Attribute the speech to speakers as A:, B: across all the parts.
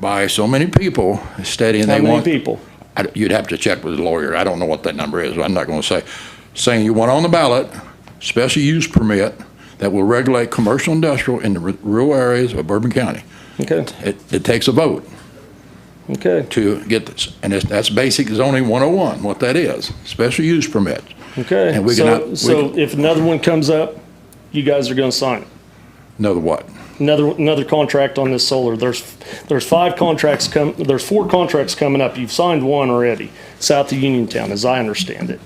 A: by so many people stating
B: How
A: they
B: many
A: want.
B: people?
A: I- You'd have to check with the lawyer. I don't know what that number is. I'm not going to say. Saying you want on the ballot, special use permit that will regulate commercial industrial in the r- rural areas of Bourbon County.
B: Okay,
A: It, it takes a vote
B: okay,
A: to get this, and it's, that's basic zoning 101, what that is, special use permit.
B: okay.
A: And we
B: So-
A: cannot- we-
B: So if another one comes up, you guys are gonna sign it.
A: Another what?
B: Another, another contract on this solar. There's, there's five contracts come, there's four contracts coming up. You've signed one already, south of Uniontown, as I understand it.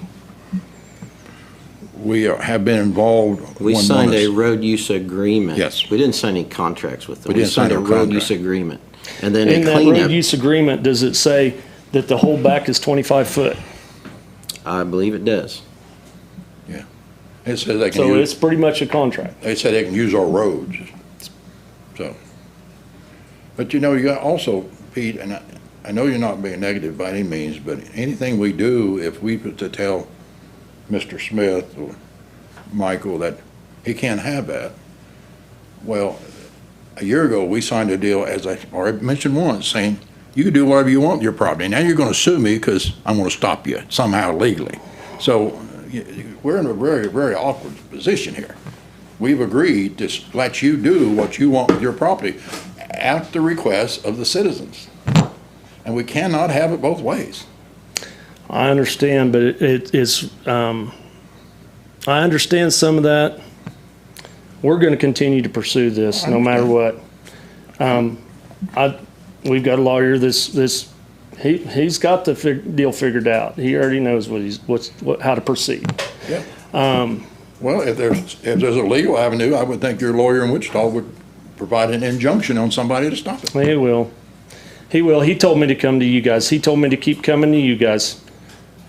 A: We are- have been involved.
C: We
A: when
C: signed a
A: bonus-
C: road use agreement.
A: Yes.
C: We didn't sign any contracts with them.
A: We
C: We
A: didn't sign
C: signed a
A: no
C: road use
A: contract.
C: agreement. And then
B: In
C: a
B: that road
C: cleanup,
B: use agreement, does it say that the whole back is twenty-five foot?
C: I believe it does.
A: It says they can
B: So it's
A: use,
B: pretty much a contract.
A: they said they can use our roads, so. But you know, you got also, Pete, and I, I know you're not being negative by any means, but anything we do, if we put to tell Mr. Smith or Michael that he can't have that, well, a year ago, we signed a deal, as I already mentioned once, saying, you can do whatever you want with your property. Now you're going to sue me because I'm going to stop you somehow legally. So uh, y- y- we're in a very, very awkward position here. We've agreed to s- let you do what you want with your property at the request of the citizens. And we cannot have it both ways.
B: I understand, but it- it, it's, um, I understand some of that. We're gonna continue to pursue this, no matter what. Um, I, we've got a lawyer that's, that's, he, he's got the fig, deal figured out. He already knows what he's, what's, what, how to proceed.
A: Yeah.
B: Um,
A: Well, if there's, if there's a legal avenue, I would think your lawyer in Wichita would provide an injunction on somebody to stop it.
B: He will. He will. He told me to come to you guys. He told me to keep coming to you guys,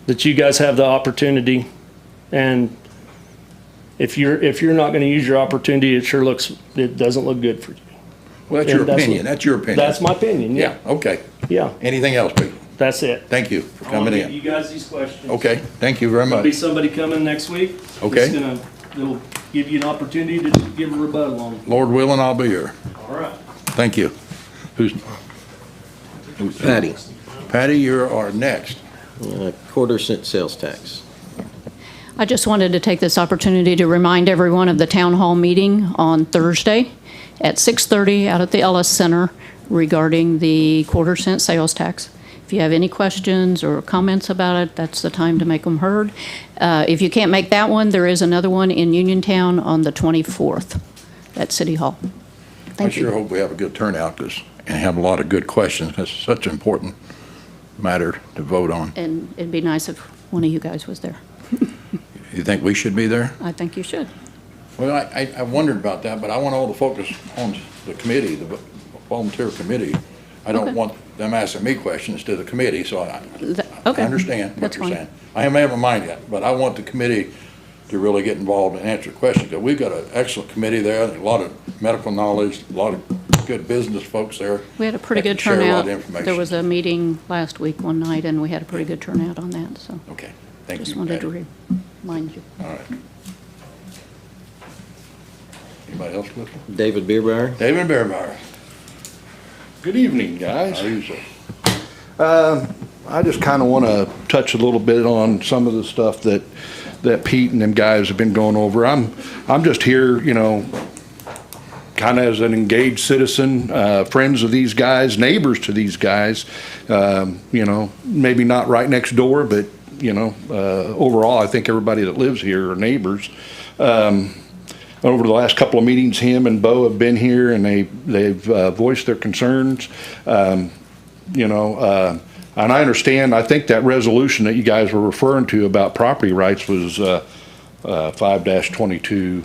B: that you guys have the opportunity. And if you're, if you're not going to use your opportunity, it sure looks, it doesn't look good for you.
A: Well, that's your
B: And that's what-
A: opinion, that's your opinion.
B: That's my opinion.
A: Yeah,
B: Yeah.
A: okay.
B: Yeah.
A: Anything else, people?
B: That's it.
A: Thank you for coming in.
B: You guys these questions.
A: Okay, thank you very
B: There'll be
A: much.
B: somebody coming next week.
A: Okay.
B: It's gonna, it'll give you an opportunity to give a rebuttal on.
A: Lord willing, I'll be here.
B: All right.
A: Thank you. Who's,
C: Patty,
A: Patty, you are next.
C: uh, quarter cent sales tax.
D: I just wanted to take this opportunity to remind everyone of the town hall meeting on Thursday at 6:30 out at the Ellis Center regarding the quarter cent sales tax. If you have any questions or comments about it, that's the time to make them heard. Uh, If you can't make that one, there is another one in Uniontown on the 24th at City Hall.
A: I
D: Thank
A: sure
D: you.
A: hope we have a good turnout, 'cause- and have a lot of good questions. That's such an important matter to vote on.
D: And it'd be nice if one of you guys was there.
A: You think we should be there?
D: I think you should.
A: Well, I, I- I wondered about that, but I want all the focus on the committee, the volunteer committee. I don't
D: Okay.
A: want them asking me questions to the committee, so I,
D: Th-
A: I
D: Okay.
A: understand what
D: That's
A: you're
D: fine.
A: saying. I haven't made my mind yet, but I want the committee to really get involved and answer questions. 'Cause We've got an excellent committee there, a lot of medical knowledge, a lot of good business folks there.
D: We had a pretty
A: that
D: good
A: can Share a lot
D: turnout.
A: of
D: There was
A: information.
D: a meeting last week, one night, and we had a pretty good turnout on that, so
A: Okay, Oh, thank you.
D: just wanted
A: Patty.
D: to remind you.
A: All right. Anybody else looking?
C: David Beerbauer?
A: David Bearmeyer,
E: Good evening,
A: how
E: guys.
A: are you, sir?
E: Um, I just kind of want to touch a little bit on some of the stuff that, that Pete and them guys have been going over. I'm, I'm just here, you know, kind of as an engaged citizen, uh, friends of these guys, neighbors to these guys. Um, you know, maybe not right next door, but, you know, uh, overall, I think everybody that lives here are neighbors. over the last couple of meetings, him and Bo have been here and they, they've uh, voiced their concerns. Um, You know, uh, and I understand, I think that resolution that you guys were referring to about property rights was uh, five twenty-two,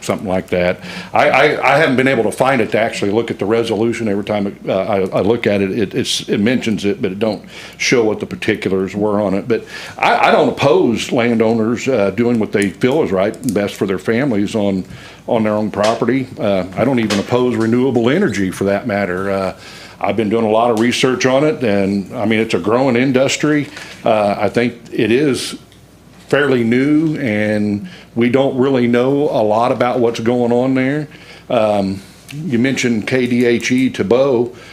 E: something like that. I, I, I haven't been able to find it to actually look at the resolution. Every time uh, I, I look at it, it, it's, it mentions it, but it don't show what the particulars were on it. But I, I don't oppose landowners uh, doing what they feel is right and best for their families on, on their own property. Uh, I don't even oppose renewable energy for that matter. Uh, I've been doing a lot of research on it, and I mean, it's a growing industry. Uh, I think it is fairly new and we don't really know a lot about what's going on there. Um, You mentioned KDHE to Bo.